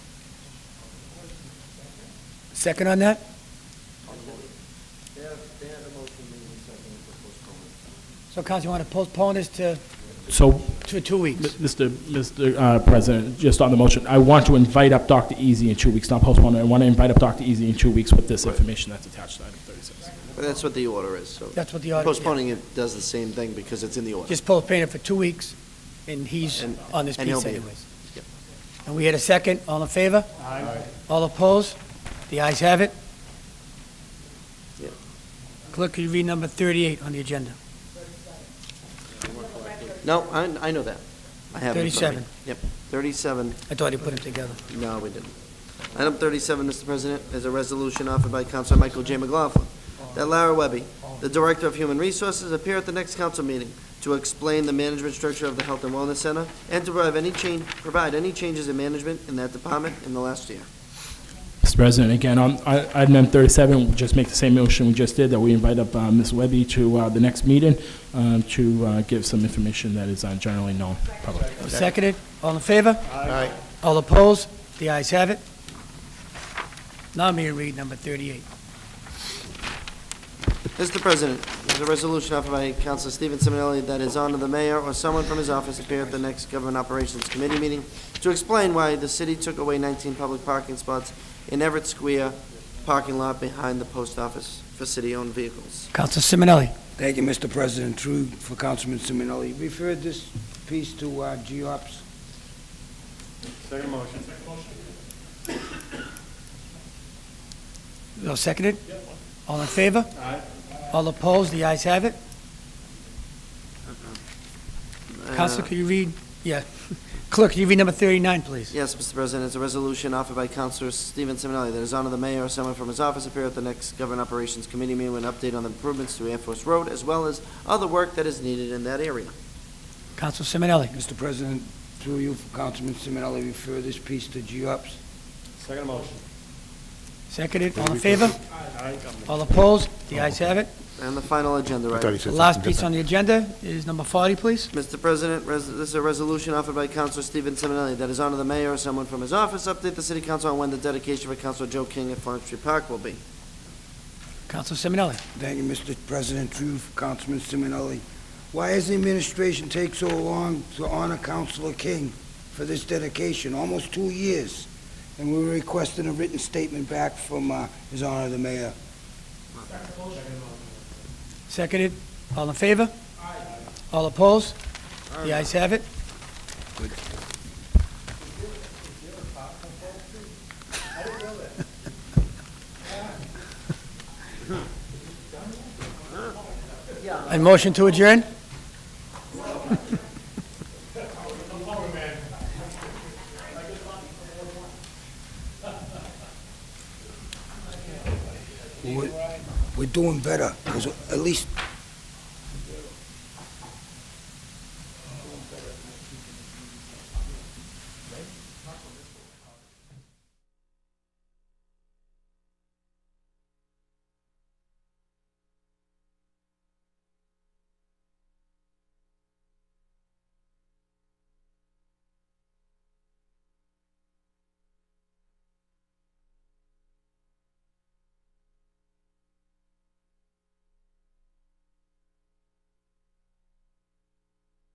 Second on that? They have, they have a motion made and seconded for postponement. So council, you want to postpone this to, So, to two m- weeks? Mr. Mr. uh, President, just on the motion, I want to invite up Dr. Easy in two weeks, not postpone it. I want to invite up Dr. Easy in two weeks with this information that's attached to item 36. But that's what the order is, so. That's what the order- Postponing it does the same thing because it's in the order. Just postpone it for two weeks, and he's And- on this and he'll piece be here. anyways. Yep. And we had a second, all in favor? Aye. All opposed? The ayes have it. Yep. Clerk, could you read number 38 on the agenda? No, I, I know that. I have it in front of me. 37. Yep, thirty-seven, I thought you put them together. no, we didn't. Item thirty-seven, Mr. President, is a resolution offered by Counselor Michael J. McLaughlin that Lara Webby, the Director of Human Resources, appear at the next council meeting to explain the management structure of the Health and Wellness Center and to provide any change, provide any changes in management in that department in the last year. Mr. President, again, on i- item number 37, we'll just make the same motion we just did, that we invite up uh, Ms. Webby to uh, the next meeting um, to uh, give some information that is uh, generally known publicly. Seconded, all in favor? Aye. All opposed? The ayes have it. Now I'm here to read number 38. Mr. President, there's a resolution offered by Councilor Stephen Simonelli that is on to the mayor or someone from his office appear at the next Government Operations Committee meeting to explain why the city took away 19 public parking spots in Everett Square parking lot behind the post office for city-owned vehicles. Council Simonelli. Thank you, Mr. President. True for Councilman Simonelli. Refer this piece to uh, GOPS. No, seconded? All in favor? Aye. All opposed? The ayes have it. Counsel, could you read, yeah. Clerk, could you read number 39, please? Yes, Mr. President, it's a resolution offered by Councilor Stephen Simonelli that is on to the mayor or someone from his office appear at the next Government Operations Committee meeting with an update on the improvements to Air Force Road as well as other work that is needed in that area. Counsel Simonelli. Mr. President, through you for Councilman Simonelli, refer this piece to GOPS. Seconded, all in favor? All opposed? The ayes have it. And the final agenda item. The last piece on the agenda is number 40, please. Mr. President, res- this is a resolution offered by Councilor Stephen Simonelli that is honor the mayor or someone from his office update the city council on when the dedication for Councilor Joe King at Forestry Park will be. Counsel Simonelli. Thank you, Mr. President. True for Councilman Simonelli. Why has the administration take so long to honor Councilor King for this dedication? Almost two years. And we were requesting a written statement back from uh, His Honor the Mayor. Seconded, all in favor? Aye. All opposed? The ayes have it. And motion to adjourn? We're we're doing better, because at least